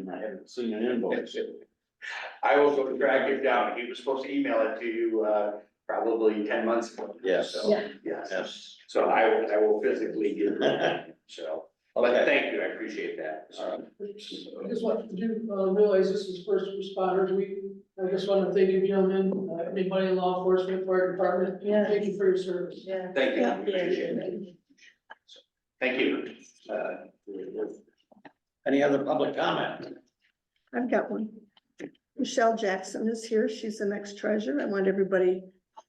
haven't seen an invoice. I will go track him down. He was supposed to email it to you, uh, probably ten months ago. Yes. So, Yeah. Yes, Yes. so I will, I will physically get it, so, but thank you, I appreciate that. All right. I just want you to uh, realize this is first responders week. I just want to thank you, gentlemen, uh, anybody in law enforcement, fire department, Yeah. thank you for your service. Yeah. Thank you, Yeah. appreciate it. Thank you. Uh, Any other public comment? I've got one. Michelle Jackson is here. She's the next treasurer. I want everybody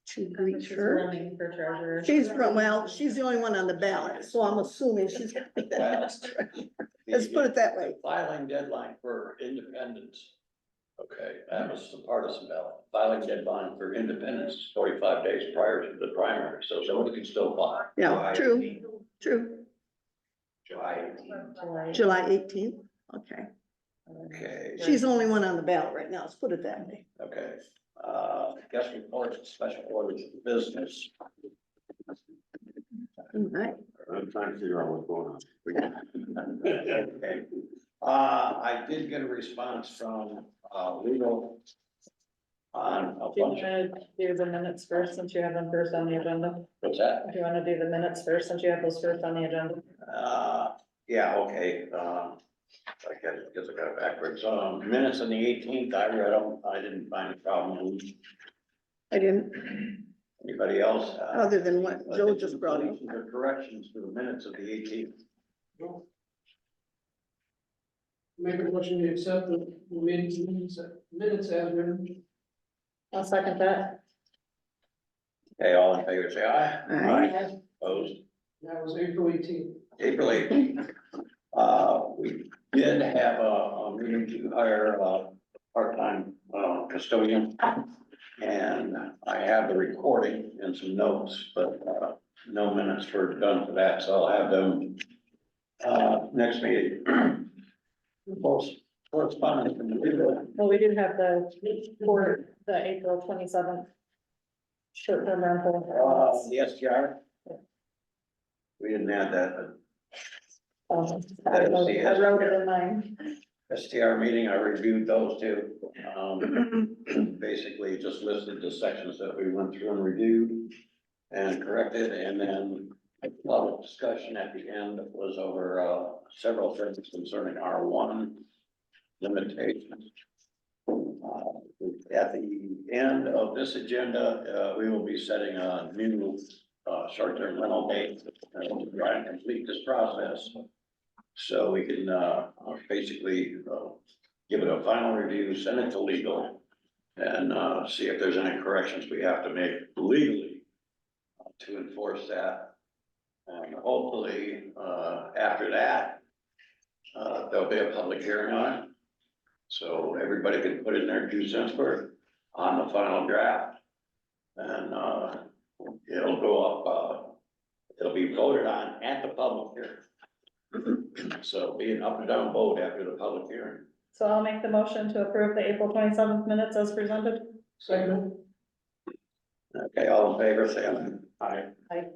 to greet her. Running for treasurer. She's from, well, she's the only one on the ballot, so I'm assuming she's. gonna be the next treasurer. Let's put it that way. Filing deadline for independence. Okay, that was the partisan ballot. Filing deadline for independence, is forty-five days prior to the primary, so someone can still file. Yeah, July true, 18th, true. July eighteenth. July. July eighteenth, okay. Okay. She's the only one on the ballot right now. Let's put it that way. Okay, uh, guest reports, special orders of business. All right. I'm trying to figure out what's going on. Uh, I did get a response from, uh, legal on a Do you bunch of, wanna uh, do the minutes first, since you have them first on the agenda? what's that? Do you wanna do the minutes first, since you have those first on the agenda? Uh, yeah, okay, um, I guess, guess I got it backwards. Um, minutes on the eighteenth, I read them, I didn't find a problem. I didn't, Anybody else? uh, Other than what Joe just brought up. additions or Corrections to the minutes of the eighteenth. Make a motion to accept the minutes, minutes as written. I'll second that. Okay, all in favor, say aye. Aye. Opposed? That was April eighteenth. April eighteenth. Uh, we did have a, a meeting to hire a part-time, uh, custodian. And I have the recording and some notes, but, uh, no minutes were done for that, so I'll have them, uh, next meeting. Post- Correspondence from the legal. Well, we do have the, for the April twenty-seventh. Short-term Uh, rental. the STR. We didn't add that, Um, I that is the wrote- I wrote it in mine. but STR meeting, I reviewed those two. Um, basically just listed the sections that we went through and reviewed and corrected, and then a lot of discussion at the end was over, uh, several things concerning R one limitations. Uh, At the end of this agenda, uh, we will be setting a new, uh, short-term rental date and try and complete this process. So we can, uh, basically, uh, give it a final review, send it to legal. And, uh, see if there's any corrections we have to make legally uh, to enforce that. And hopefully, uh, after that, uh, there'll be a public hearing on it. So everybody can put in their two cents worth on the final draft. And, uh, it'll go up, uh, it'll be voted on at the public hearing. So be an up and down vote after the public hearing. So I'll make the motion to approve the April twenty-seventh minutes as presented. Second, Okay, all in favor, say aye. Aye.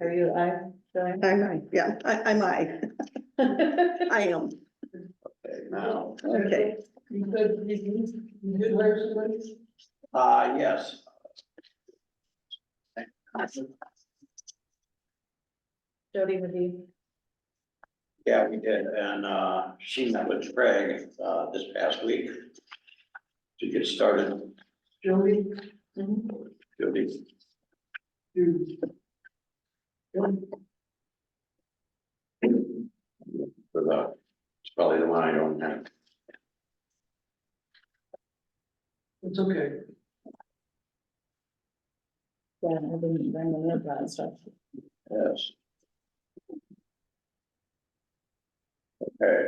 Are you, I, Joanne? I'm, aye. yeah, I, I'm, I, I am, Okay, now, okay. you said you you did hire somebody? uh, yes, Jody McGee. yeah, we did, and, uh, she met with Craig, uh, this past week. To get started, Jody, Mm-hmm. She'll be- you. Jody? for the, it's probably the one I don't have. It's okay. Yeah, I didn't bring the note down, so. Yes. Okay.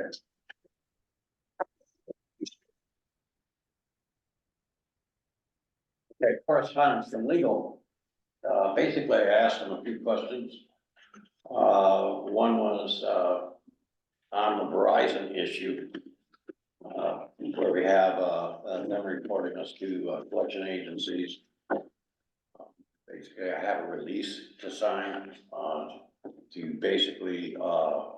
Okay, correspondence from legal. Uh, basically, I asked them a few questions. Uh, one was, uh, on the Verizon issue. Uh, where we have, uh, them reporting us to uh, collection agencies basically I have a release to sign, uh, to basically, uh,